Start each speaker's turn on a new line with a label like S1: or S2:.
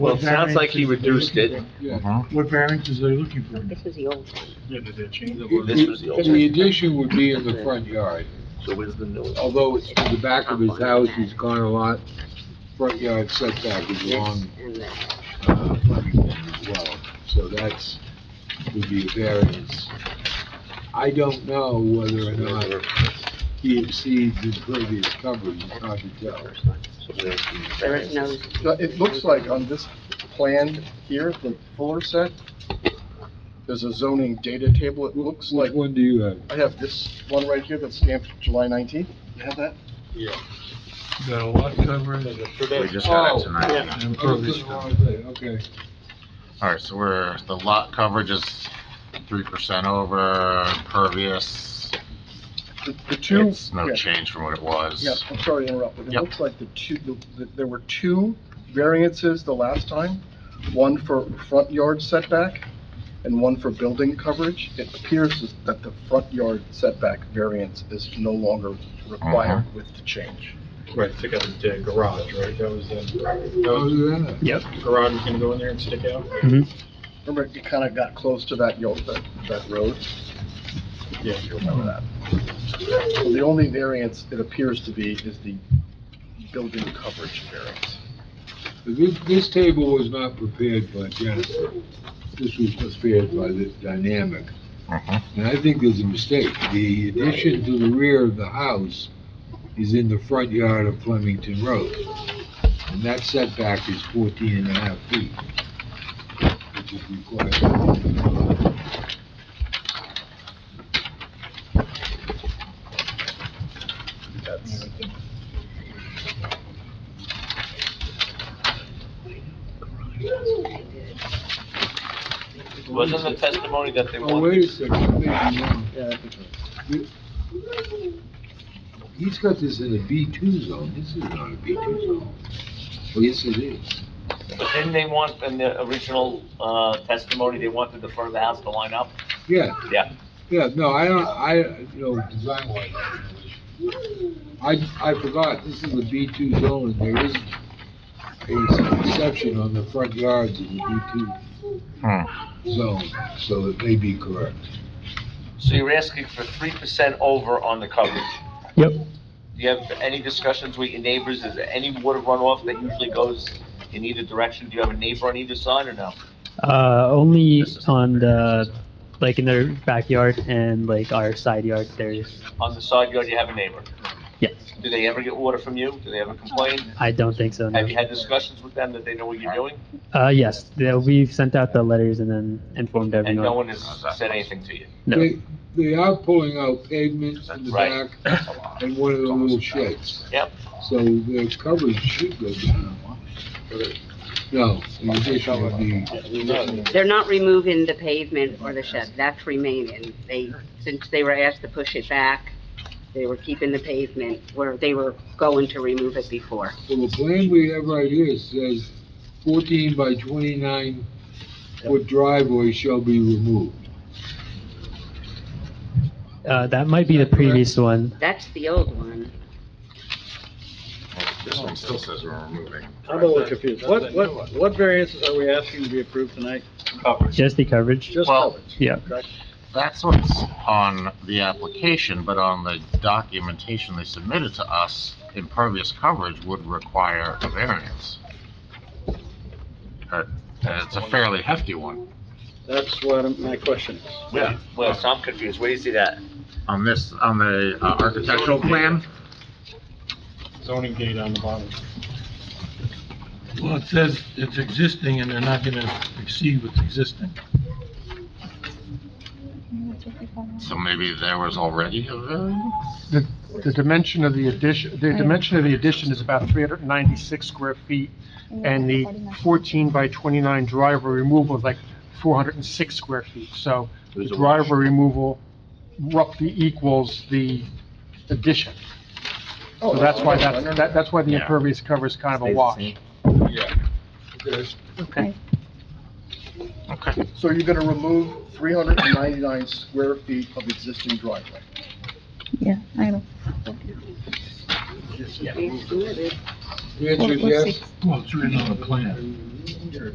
S1: Well, it sounds like he
S2: What variances-
S1: reduced it.
S2: What variances are they looking for?
S3: This is the old
S1: This was the old
S4: The addition would be in the front yard,
S1: So where's the new one?
S4: although it's to the back of his house, he's gone a lot. Front yard setback is long,
S3: and that.
S4: uh, front yard as well, so that's, would be a variance. I don't know whether or not he exceeds his previous coverage, it's hard to tell.
S1: So where's the-
S3: There is no.
S5: Uh, It looks like on this plan here, the fuller set, there's a zoning data table, it looks like,
S4: Which one do you have?
S5: I have this one right here that's stamped July 19th. You have that?
S2: The lot coverage and
S6: We just got it
S4: Oh,
S6: tonight.
S4: I was
S2: impervious
S4: looking at the wrong thing, Oh, Okay.
S6: All right, so we're, the lot coverage is three percent over pervious.
S5: The- The two.
S6: It's no
S5: yeah.
S6: change from what it was.
S5: Yes, I'm sorry to interrupt, but it
S6: Yep.
S5: looks like the two, the- the- there were two variances the last time, one for front yard setback and one for building coverage. It appears as- that the front yard setback variance is no longer required with the change.
S7: Right, took out the garage, right? That was, the
S4: Other than that,
S7: garage was gonna go in there and stick out?
S5: Remember, it kind of got close to that yard, that, that road?
S7: Yeah.
S5: You remember that? So The only variance it appears to be is the building coverage variance.
S4: This, this table was not prepared by Jennifer. This was prepared by the dynamic.
S6: Mhm.
S4: And I think there's a mistake. The addition to the rear of the house is in the front yard of Flemington Road. And that setback is 14 and a half feet, which is required.
S5: That's.
S1: Wasn't the testimony that they
S4: Oh,
S1: wanted?
S4: wait a second, I'm thinking wrong. He's got this in a B2 zone. This is not a B2 zone. Well, yes, it is.
S8: But didn't they want, in the original uh, testimony, they wanted the front of the house to line up?
S4: Yeah.
S8: Yeah.
S4: Yeah, no, I don't, I, you know, design wise. I, I forgot, this is a B two zone, and there is a exception on the front yards of the B
S6: Hmm.
S4: two zone, so it may be correct.
S8: So you're asking for three percent over on the coverage?
S2: Yep.
S8: Do you have any discussions with your neighbors? Is there any water runoff that usually goes in either direction? Do you have a neighbor on either side or no?
S9: Uh, only on the, like in their backyard and like our side yard, there's,
S8: On the side yard, you have a neighbor.
S9: yes,
S8: Do they ever get water from you? Do they ever complain?
S9: I don't think so, no.
S8: Have you had discussions with them that they know what you're doing?
S9: Uh, yes, they- we've sent out the letters and then informed
S8: And no
S9: everyone.
S8: one has said anything to you?
S9: No,
S4: They, they are pulling out pavement in the
S8: Right.
S4: back and one of the little sheds.
S8: Yep.
S4: So their coverage should go down. No, the addition would be,
S3: They're not removing the pavement or the shed, that's remaining. They, since they were asked to push it back, they were keeping the pavement where they were going to remove it before.
S4: well, the plan we have right here says fourteen by twenty-nine foot driveway shall be removed.
S9: uh, that might be the previous one.
S3: That's the old one.
S6: This one still says we're removing.
S7: I'm a little confused. What, what, what variances are we asking to be approved tonight?
S9: Just the coverage?
S5: Just
S6: Well-
S5: coverage.
S9: Yeah.
S6: That's what's on the application, but on the documentation they submitted to us, impervious coverage would require a variance. Uh, It's a fairly hefty one
S7: That's what I'm- my question is.
S8: Yeah. Well, so I'm confused. Where do you see that?
S6: on this, on the uh, architectural plan.
S7: Zoning gate on the bottom.
S2: Well, it says it's existing and they're not gonna exceed what's existing.
S6: So maybe there was already a variance?
S10: The, the dimension of the addition, the dimension of the addition is about 396 square feet, and the 14 by 29 driveway removal is like 406 square feet. So the driveway removal roughly equals the addition.
S5: Oh,
S10: So that's why that's, that- that's why the
S6: Yeah.
S10: impervious cover is kind of a wash.
S4: Yeah. There's
S6: Okay.
S5: So you're gonna remove three hundred and ninety-nine square feet of existing driveway?
S11: Yeah, I know.
S3: Yes, it is.
S4: The answer is
S11: What- what's
S4: yes.
S2: Well, it's written on the plan.
S5: here.